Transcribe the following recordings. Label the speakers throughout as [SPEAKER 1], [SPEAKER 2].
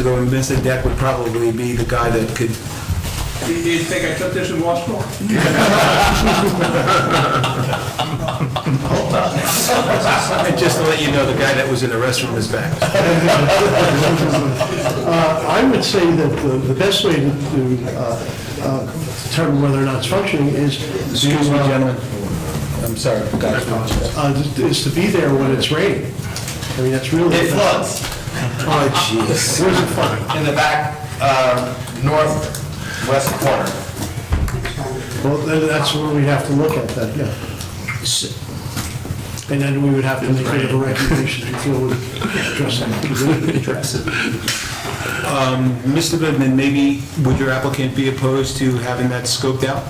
[SPEAKER 1] ago, we missed a deck would probably be the guy that could,
[SPEAKER 2] Do you do you think I took this in law school?
[SPEAKER 1] just to let you know, the guy that was in the restroom is back.
[SPEAKER 3] Uh, I would say that the the best way to- to uh, uh, determine whether or not it's functioning is, to,
[SPEAKER 1] Excuse me, gentlemen. I'm sorry, guys.
[SPEAKER 3] uh, is to be there when it's raining. I mean, that's really.
[SPEAKER 4] It floods
[SPEAKER 1] Oh, jeez.
[SPEAKER 3] Where's it flooding?
[SPEAKER 4] in the back, uh, northwest corner.
[SPEAKER 3] Well, then that's where we have to look at that, yeah. And then we would have to make whatever recommendations we feel would address that.
[SPEAKER 1] Mr. Goodman, maybe, would your applicant be opposed to having that scoped out?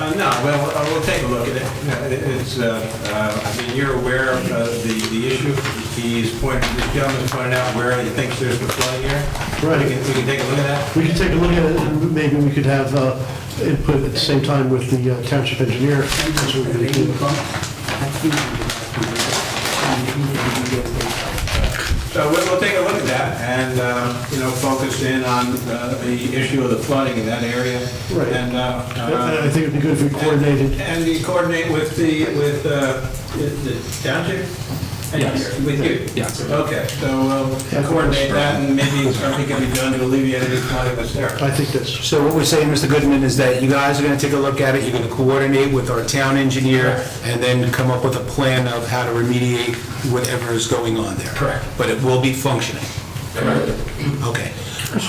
[SPEAKER 2] Uh, no, well, uh, we'll take a look at it. No, it- It's, uh, uh, I mean, you're aware of uh, the, the issue. He's pointed, this gentleman's pointed out where he thinks there's the flooding here.
[SPEAKER 3] Right.
[SPEAKER 2] We can, we can take a look at that.
[SPEAKER 3] We could take a look at it, and maybe we could have uh, input at the same time with the uh, township engineer. That's what we're gonna do.
[SPEAKER 2] So we'll, we'll take a look at that and, uh, you know, focus in on uh, the issue of the flooding in that area.
[SPEAKER 3] Right.
[SPEAKER 2] And, uh,
[SPEAKER 3] And I
[SPEAKER 2] uh,
[SPEAKER 3] think it'd be good if we coordinated.
[SPEAKER 2] and you coordinate with the, with uh, the the township? Yes. With you? Yes. Okay, so uh, coordinate that, and maybe something can be done to alleviate any flooding that's there.
[SPEAKER 3] I think that's,
[SPEAKER 1] So what we're saying, Mr. Goodman, is that you guys are going to take a look at it, you're going to coordinate with our town engineer, and then come up with a plan of how to remediate whatever is going on there.
[SPEAKER 2] Correct.
[SPEAKER 1] But it will be functioning. Okay.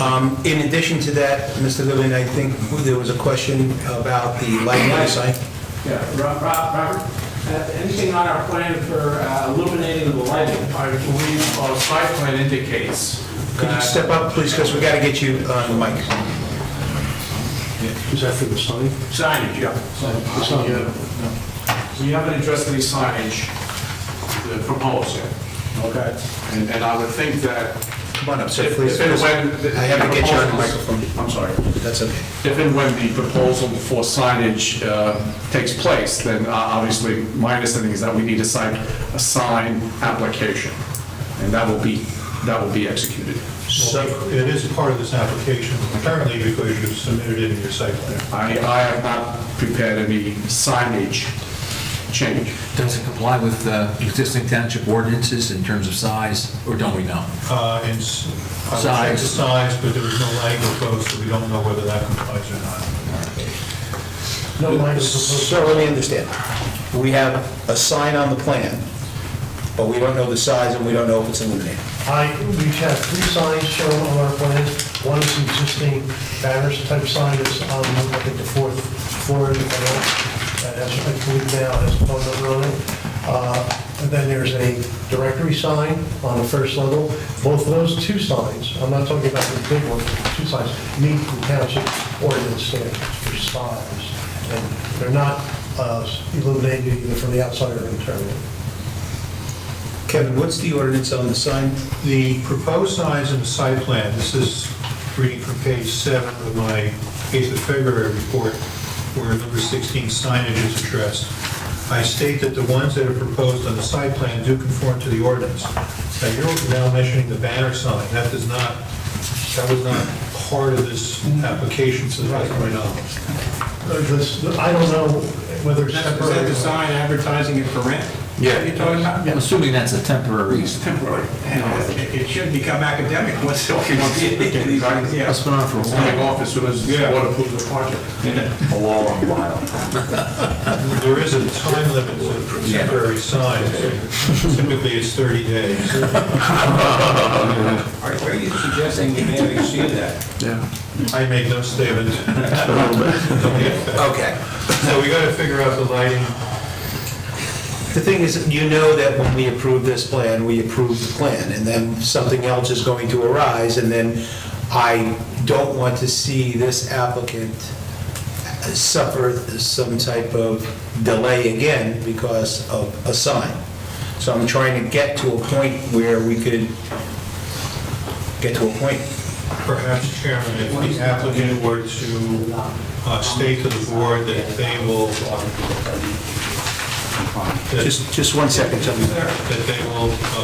[SPEAKER 1] Um, In addition to that, Mr. Goodman, I think there was a question about the lighting on the site.
[SPEAKER 5] Yeah, Ro- Ro- Robert, uh, anything on our plan for uh, illuminating the lighting?
[SPEAKER 6] I believe our site plan indicates
[SPEAKER 1] Could you
[SPEAKER 6] that
[SPEAKER 1] step up, please, because we got to get you on the mic.
[SPEAKER 3] is that for the sign?
[SPEAKER 2] Signage, yeah.
[SPEAKER 3] The sign, yeah.
[SPEAKER 6] we haven't addressed any signage uh, proposed yet.
[SPEAKER 2] Okay.
[SPEAKER 6] And and I would think that
[SPEAKER 1] Come on up, sir,
[SPEAKER 6] if
[SPEAKER 1] please.
[SPEAKER 6] if and when... the-
[SPEAKER 1] I have to get you on the
[SPEAKER 6] proposals-
[SPEAKER 1] microphone.
[SPEAKER 6] I'm sorry.
[SPEAKER 1] That's okay.
[SPEAKER 6] If and when the proposal for signage uh, takes place, then uh, obviously, my understanding is that we need a sign, a sign application, and that will be, that will be executed.
[SPEAKER 7] So it is part of this application, apparently because you submitted it in your site plan.
[SPEAKER 6] I I have not prepared any signage change.
[SPEAKER 8] Does it comply with uh, existing township ordinances in terms of size, or don't we know?
[SPEAKER 7] Uh, And s- I would say the
[SPEAKER 8] Size.
[SPEAKER 7] size, but there was no language posed, so we don't know whether that complies or not.
[SPEAKER 3] No lighting proposed.
[SPEAKER 1] So let me understand. We have a sign on the plan, but we don't know the size and we don't know if it's illuminated.
[SPEAKER 3] I, we have three signs shown on our plans. One is an existing banners type sign that's on, I think, the fourth floor in the middle. That has, I believe now, has a phone number on it. Uh, And then there's a directory sign on the first level. Both of those two signs, I'm not talking about the big one, two signs, meet the township ordinance standards for size. And they're not uh, illuminated either from the outside or internally.
[SPEAKER 1] Kevin, what's the ordinance on the sign?
[SPEAKER 7] The proposed signs in the site plan, this is reading from page seven of my 8th of February report, where number 16 signage is addressed. I state that the ones that are proposed on the site plan do conform to the ordinance. Now, you're now mentioning the banner sign, that does not, that was not part of this application, so that's my knowledge.
[SPEAKER 3] This- I don't know whether it's
[SPEAKER 2] Is that- is that
[SPEAKER 3] separate.
[SPEAKER 2] the sign advertising it for rent?
[SPEAKER 8] Yeah.
[SPEAKER 2] You're talking about?
[SPEAKER 8] I'm assuming that's a temporary,
[SPEAKER 2] Temporary. It it should become academic once it all... Yeah.
[SPEAKER 8] that's been on for a while.
[SPEAKER 6] coming off as soon as the board approves the project.
[SPEAKER 7] There is a time limit to temporary signs, typically it's 30 days.
[SPEAKER 2] Are are you suggesting we may exceed that?
[SPEAKER 7] I make no statement.
[SPEAKER 1] Okay.
[SPEAKER 7] So we got to figure out the lighting.
[SPEAKER 1] The thing is, you know that when we approve this plan, we approve the plan, and then something else is going to arise, and then I don't want to see this applicant suffer some type of delay again because of a sign. So I'm trying to get to a point where we could get to a point.
[SPEAKER 7] Perhaps, Chairman, if the applicant were to uh, state to the board that they will that
[SPEAKER 9] Just, just one second, Tony.
[SPEAKER 7] that they will uh,